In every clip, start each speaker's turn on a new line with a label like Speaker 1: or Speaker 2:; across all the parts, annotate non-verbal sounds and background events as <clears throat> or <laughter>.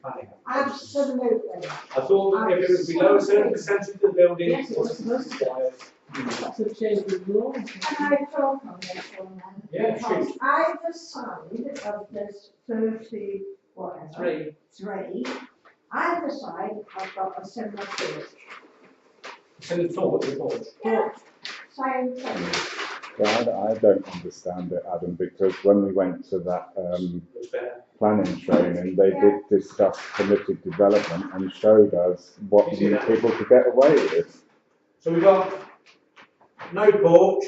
Speaker 1: planning.
Speaker 2: Absolutely.
Speaker 1: I thought if it was below a certain percentage of the building.
Speaker 3: Yes, it was supposed to That's a change of law.
Speaker 2: Can I talk on this one then?
Speaker 1: Yeah, shoot.
Speaker 2: Because Either side of this thirty, whatever,
Speaker 3: Three.
Speaker 2: three, either side have got a similar field.
Speaker 1: It's in the thought, the thought.
Speaker 2: Yeah, same thing.
Speaker 4: God, I don't understand it, Adam, because when we went to that um,
Speaker 1: It's better.
Speaker 4: planning training, they did discuss permitted development and showed us what
Speaker 1: You see that?
Speaker 4: people could get away with.
Speaker 1: So we've got no porch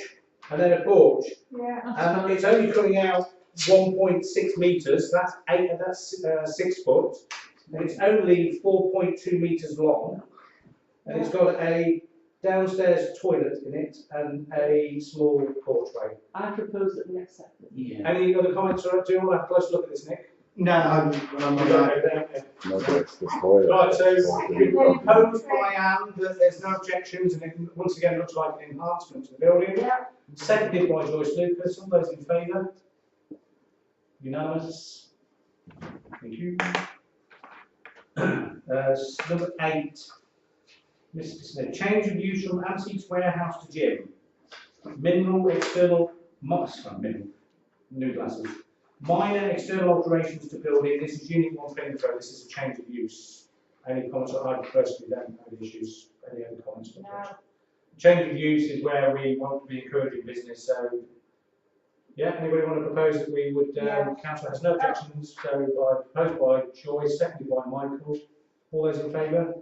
Speaker 1: and then a porch.
Speaker 2: Yeah,
Speaker 3: Uh-huh.
Speaker 1: Um, it's only coming out one point six metres, that's eight, that's uh, six foot. And it's only four point two metres long. And it's got a downstairs toilet in it and a small porchway.
Speaker 3: I propose that we accept it.
Speaker 5: Yeah.
Speaker 1: Any other comments or do you all have a close look at this, Nick?
Speaker 5: No, I'm, well, I'm on that.
Speaker 4: Nobody it's the toilet.
Speaker 1: Right, so
Speaker 4: that's the big problem.
Speaker 1: Proposed by Anne that there's no objections and it once again looks like an enhancement to the building.
Speaker 2: yeah,
Speaker 1: Seconded by Joyce Lucas, all those in favour? Unanimous? Thank you. <clears throat> Uh, s- number eight. Mr Smith, change of use from antiques warehouse to gym. Mineral external, mi- sorry, mineral, new glasses. Minor external alterations to building, this is unit one Plymouth Road, this is a change of use. Any comments, I personally don't have any issues, any other comments?
Speaker 2: No.
Speaker 1: Change of use is where we want to be encouraging business, so. Yeah, anybody want to propose that we would,
Speaker 2: Yeah.
Speaker 1: um, council has no objections, so by, proposed by Joyce, seconded by Michael. All those in favour?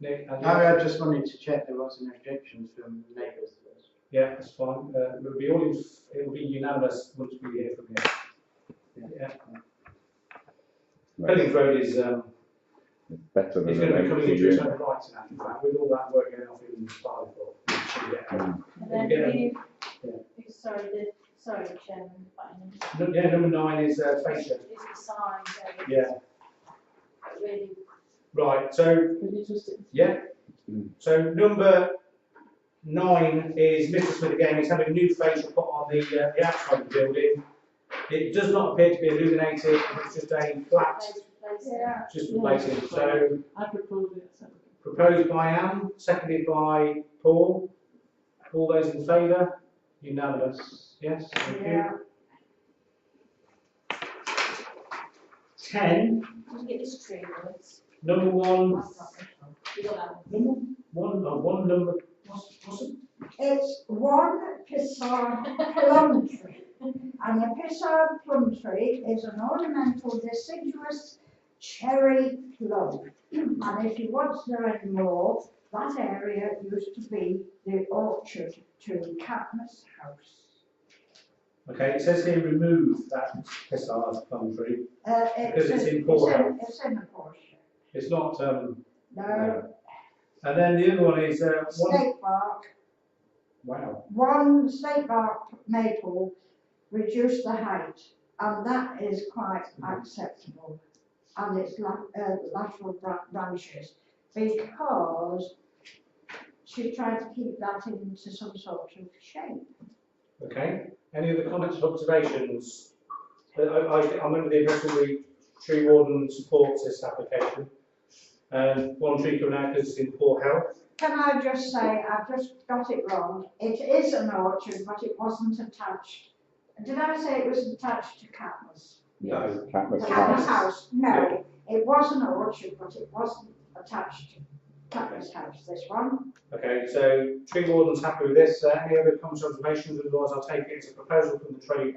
Speaker 1: Nick? and-
Speaker 5: I, I just wanted to check there wasn't objections from neighbours.
Speaker 1: Yeah, that's fine. Uh, it'll be all, in- it'll be unanimous once we hear from you. Yeah.
Speaker 4: Right,
Speaker 1: Pelling Road is, um,
Speaker 4: it's Better
Speaker 1: is
Speaker 4: than
Speaker 1: going to be
Speaker 4: an
Speaker 1: coming
Speaker 4: empty
Speaker 1: into its
Speaker 4: unit.
Speaker 1: own right in actual fact, with all that work going off in five or.
Speaker 4: Mm.
Speaker 6: And then
Speaker 1: Yeah.
Speaker 6: we,
Speaker 1: Yeah.
Speaker 6: sorry, the, sorry, Chairman, but I mean,
Speaker 1: Nu- Yeah, number nine is, uh, face shed.
Speaker 6: it's the sign, so it's
Speaker 1: Yeah,
Speaker 6: really
Speaker 1: right, so,
Speaker 3: Would you just-
Speaker 1: yeah.
Speaker 4: Mm.
Speaker 1: So number nine is Mr Smith again, he's having a new facial put on the, uh, the outside of the building. It does not appear to be illuminated, it's just a flat,
Speaker 6: place, place.
Speaker 2: yeah.
Speaker 1: just replacing, so.
Speaker 3: I propose we accept it.
Speaker 1: Proposed by Anne, seconded by Paul. All those in favour? Unanimous, yes, thank
Speaker 2: Yeah.
Speaker 1: you. Ten,
Speaker 6: We can get this tree, well, it's,
Speaker 1: number one,
Speaker 6: that's not, we got that.
Speaker 1: number one, uh, one number, what's, what's it?
Speaker 2: It's one pissar plum tree. And a pissar plum tree is an ornamental deciduous cherry plum. And if you want to know any more, that area used to be the orchard to Cadmus House.
Speaker 1: Okay, it says here remove that pissar plum tree.
Speaker 2: Uh,
Speaker 1: Because it's in poor health.
Speaker 2: It's in a poor shape.
Speaker 1: It's not, um,
Speaker 2: No,
Speaker 1: and then the other one is, uh, one,
Speaker 2: state park,
Speaker 1: wow,
Speaker 2: one state park maple reduced the height, and that is quite acceptable. And it's la- uh, lateral bra- branches, because she tried to keep that into some sort of shape.
Speaker 1: okay. Any other comments or observations? Uh, I, I, I think- I remember the original re- tree warden supports this application. And one tree coming out because it's in poor health.
Speaker 2: Can I just say, I've just got it wrong, it is an orchard, but it wasn't attached. Did I say it was attached to Catmus?
Speaker 1: No.
Speaker 4: Catmas
Speaker 2: Catman's
Speaker 4: House.
Speaker 2: house, no, it was an orchard, but it wasn't attached to Catman's house, this one.
Speaker 1: Okay, so tree warden's happy with this. Uh, Any other comments or observations? Otherwise, I'll take it as a proposal from the tree warden